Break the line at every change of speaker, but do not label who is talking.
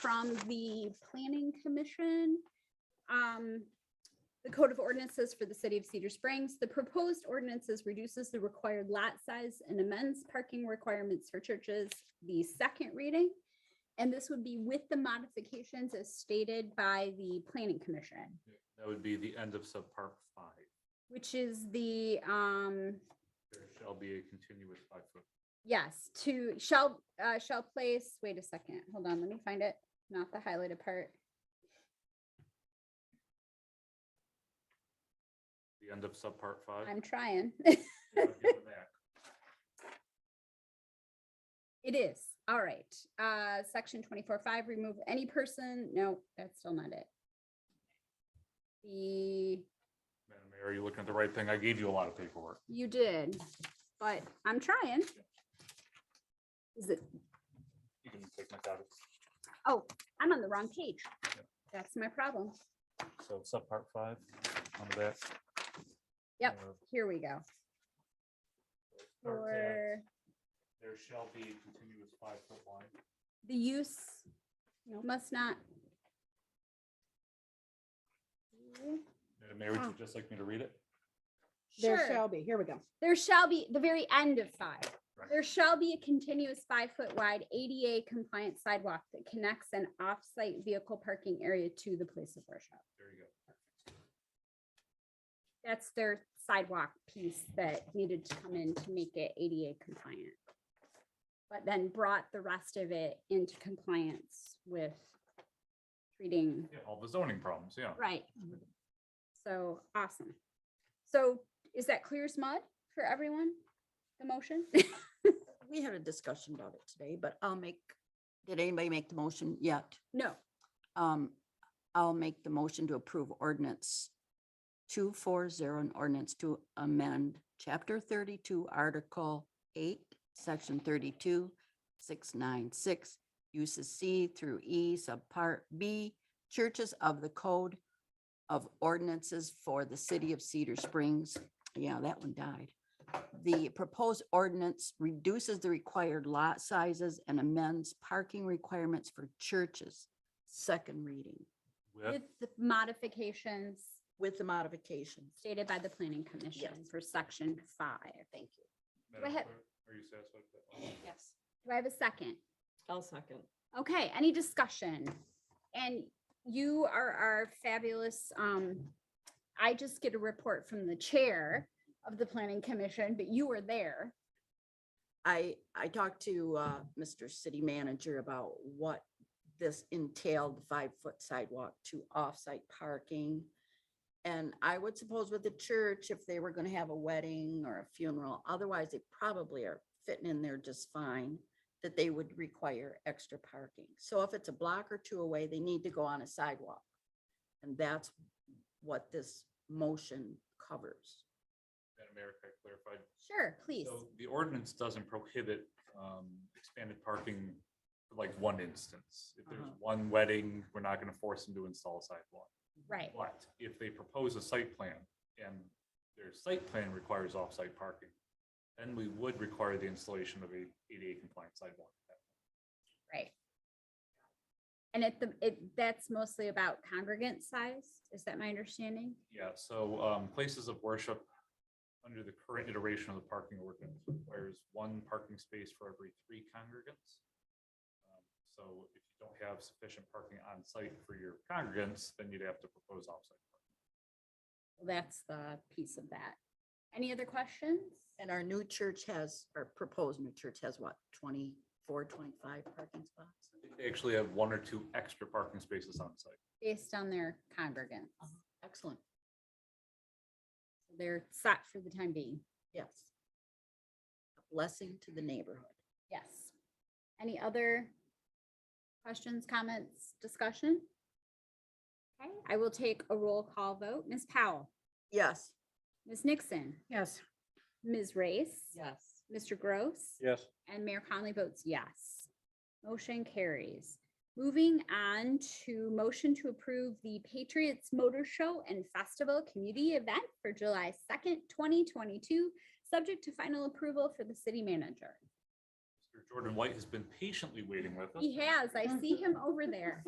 from the planning commission. Um, the code of ordinances for the city of Cedar Springs, the proposed ordinances reduces the required lot size and amends parking requirements for churches, the second reading. And this would be with the modifications as stated by the planning commission,
That would be the end of subpart five.
which is the, um,
There shall be a continuous five foot.
Yes, to shall, uh, shall place, wait a second, hold on, let me find it, not the highlighted part.
The end of subpart five.
I'm trying.
Yeah, I'll give it back.
It is, all right. Uh, section twenty-four five, remove any person, no, that's still not it. The,
Madam Mayor, are you looking at the right thing? I gave you a lot of paperwork.
you did, but I'm trying. Is it, oh,
You can take my copy.
I'm on the wrong page. That's my problem.
So subpart five, under that.
Yep.
uh,
Here we go.
start there.
For
There shall be a continuous five foot line.
the use must not.
Madam Mayor, would
Oh.
you just like me to read it?
There
Sure.
shall be, here we go.
There shall be, the very end of five,
Right.
there shall be a continuous five foot wide ADA compliant sidewalk that connects an off-site vehicle parking area to the place of worship.
There you go.
That's their sidewalk piece that needed to come in to make it ADA compliant. But then brought the rest of it into compliance with treating
Yeah, all the zoning problems, yeah.
Right. So, awesome. So is that clear as mud for everyone? The motion?
We had a discussion about it today, but I'll make, did anybody make the motion yet?
No,
Um, I'll make the motion to approve ordinance two four zero and ordinance to amend chapter thirty-two, article eight, section thirty-two, six nine six, uses C through E, subpart B, churches of the code of ordinances for the city of Cedar Springs. Yeah, that one died. The proposed ordinance reduces the required lot sizes and amends parking requirements for churches second reading
With,
with the modifications
with the modifications.
stated by the planning commission for section five. Thank you.
Madam
ahead.
Clerk, are you satisfied with that?
Yes.
Do I have a second?
I'll second.
Okay, any discussion? And you are our fabulous, um, I just get a report from the chair of the planning commission, but you were there.
I, I talked to, uh, Mr. City Manager about what this entailed, the five-foot sidewalk to off-site parking. And I would suppose with the church, if they were gonna have a wedding or a funeral, otherwise they probably are fitting in there just fine, that they would require extra parking. So if it's a block or two away, they need to go on a sidewalk. And that's what this motion covers.
Madam Mayor, can I clarify?
Sure, please.
So The ordinance doesn't prohibit um, expanded parking for like one instance. If there's
Uh-huh.
one wedding, we're not going to force them to install a sidewalk.
Right.
But if they propose a site plan and their site plan requires off-site parking, then we would require the installation of a ADA compliant sidewalk.
Right. And at the, it, that's mostly about congregant size, is that my understanding?
Yeah, so um, places of worship under the current iteration of the parking ordinance requires one parking space for every three congregants. Um, So if you don't have sufficient parking on site for your congregants, then you'd have to propose off-site. parking.
Well, That's the piece of that. Any other questions?
And our new church has, or proposed new church has what, 24, 25 parking spots?
I think They actually have one or two extra parking spaces on site.
Based on their congregants,
Excellent,
they're set for the time being,
yes. A Blessing to the neighborhood.
yes. Any other questions, comments, discussion? Okay, I will take a roll call vote. Ms. Powell,
Yes.
Ms. Nixon,
Yes,
Ms. Race,
Yes.
Mr. Gross.
Yes.
And Mayor Conley votes yes. Motion carries. Moving on to motion to approve the Patriots Motor Show and Festival Community Event for July second, twenty twenty-two, subject to final approval for the city manager.
Mr. Jordan White has been patiently waiting with us.
He has. I see him over there.